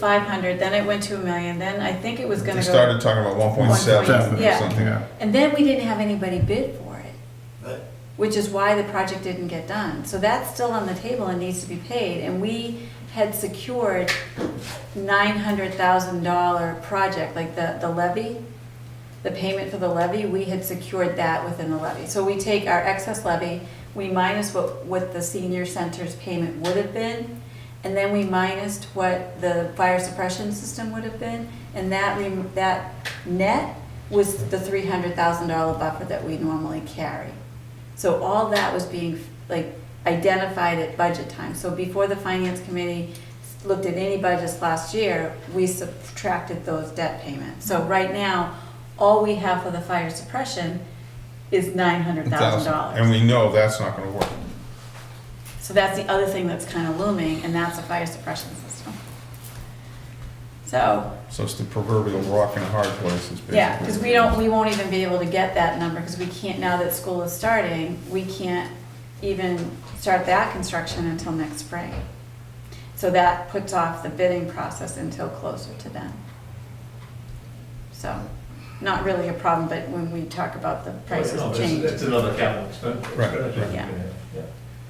five hundred, then it went to a million, then I think it was They gonna go. started talking about one point seven Yeah. or something. Yeah. And then we didn't have anybody bid for it, Right. which is why the project didn't get done. So that's still on the table and needs to be paid, and we had secured nine hundred thousand dollar project, like the, the levy, the payment for the levy, we had secured that within the levy. So we take our excess levy, we minus what, what the senior center's payment would have been, and then we minus what the fire suppression system would have been, and that, rem- that net was the three hundred thousand dollar buffer that we normally carry. So all that was being, like, identified at budget time. So before the finance committee looked at any budgets last year, we subtracted those debt payments. So right now, all we have for the fire suppression is nine hundred thousand And dollars. we know that's not gonna work. So that's the other thing that's kind of looming, and that's the fire suppression system. So, So it's the proverbial rock in a hard place is basically. yeah, because we don't, we won't even be able to get that number, because we can't, now that school is starting, we can't even start that construction until next spring. So that puts off the bidding process until closer to then. So, not really a problem, but when we talk about the prices No, it's- change. It's another capital expense. Right, right. Yeah. Yeah.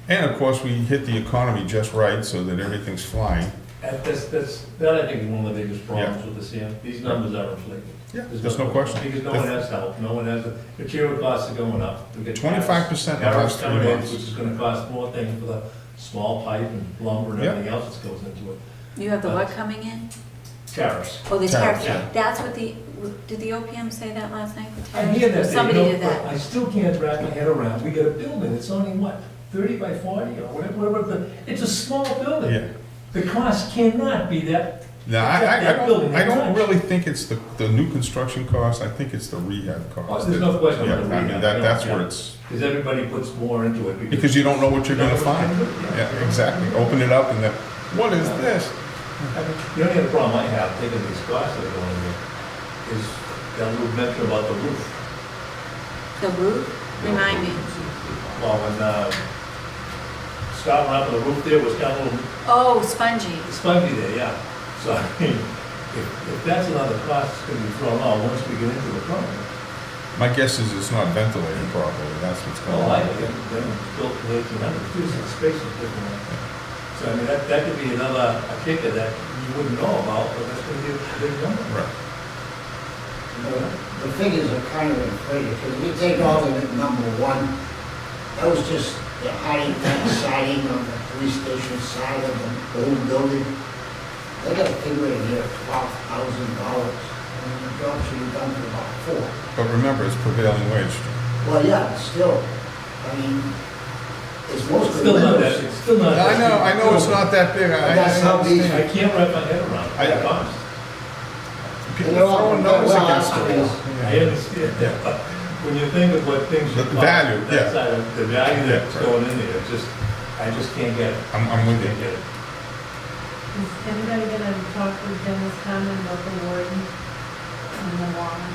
And of course, we hit the economy just right so that everything's flying. And that's, that's, that I think is one of the biggest problems with this here, these numbers are inflated. Yeah, there's no question. Because no one has help, no one has, material costs are going up. We get tariffs- 25% in the tariffs last three coming in, months. Which is gonna cost more things for the small pipe and lumber and Yeah. everything else that goes into it. You have the what coming in? Tariffs. Oh, the Tariff, tariff, yeah. that's what the, did the OPM say that last night? the I tariff? hear that. they Somebody don't- did but that. I still can't wrap my head around, we got a building, it's only what, thirty by forty or whatever, whatever, the- it's a small building. Yeah. The cost cannot be that, Now, I, I, I That don't, building I don't is- really think it's the, the new construction cost, I think it's the rehab cost. Oh, there's no question Yeah, about the I mean, rehab, that, yeah, that's where yeah. it's, because everybody puts more into it. because you don't know what you're gonna find. Yeah, exactly. Open it up and then, what is this? The only other problem I have, taking these costs that are going in, is that little mention about the roof. The roof, remind me. Well, when, uh, Scott went up on the roof there, was kind of a little Oh, spongy. It's funky there, yeah. So, I mean, if, if that's another cost that's gonna be thrown out once we get into the program. My guess is it's not ventilated properly, that's what's going Well, I, on. think then it's built in eighteen hundred, too, so the space is different. So, I mean, that, that could be another a kicker that you wouldn't know about, but that's gonna be a big number. Right. The figures are kind of inflated, because we take all of it, number one, that was just the high back siding on the police station side of the old building. They got a figure in here, twelve thousand dollars, and the jobs should be done for about four. But remember, it's prevailing wage. Well, yeah, still, I mean, it's It's mostly still not windows. that, it's still not. that I know, I know it's big. not that big, I, I That's how these- understand. I can't wrap my head around I- that cost. People You know, throwing numbers well, against the I- wall. I understand that, but when you think of what things. The should value, cost, yeah. that side of- The value Yeah, that's right. going in there, it's just, I just can't get it, I'm, I'm with can't you. get it. Is anybody gonna talk with Dennis Conlon about the warden and the warden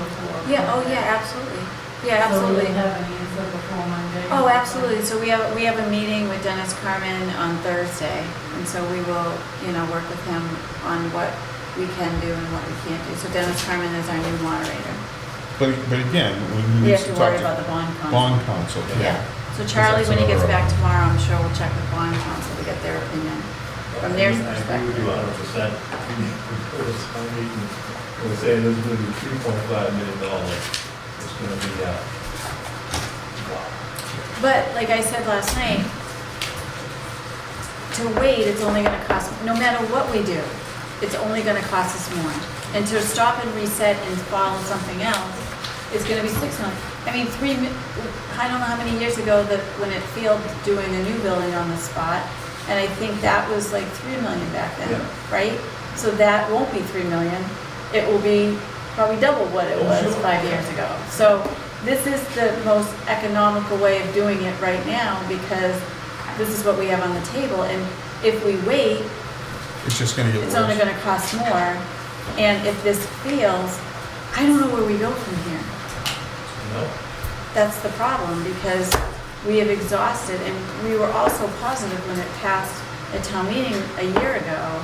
before? Yeah, oh, yeah, absolutely. Yeah, So we absolutely. have an answer before Monday? Oh, absolutely. So we have, we have a meeting with Dennis Carmen on Thursday, and so we will, you know, work with him on what we can do and what we can't do. So Dennis Carmen is our new moderator. But, but again, we We need have to to talk worry about the to bond council. bond council, Yeah. yeah. So Charlie, when he gets Because that's back tomorrow, I'm sure we'll check with bond council to get their opinion from their I agree with perspective. you a hundred percent. It was, I mean, it was saying there's gonna be three point five million dollars, it's gonna be, uh, wow. But like I said last night, to wait, it's only gonna cost, no matter what we do, it's only gonna cost us more. And to stop and reset and follow something else is gonna be six months. I mean, three, mi- I don't know how many years ago that, when it failed doing a new building on the spot, and I think that was like three million back then, Yeah. right? So that won't be three million, it will be probably double what it Oh, was sure. five years ago. So this is the most economical way of doing it right now, because this is what we have on the table, and if we wait, It's just gonna get it's only worse. gonna cost more, and if this fails, I don't know where we go from here. You know? That's the problem, because we have exhausted, and we were also positive when it passed a town meeting a year ago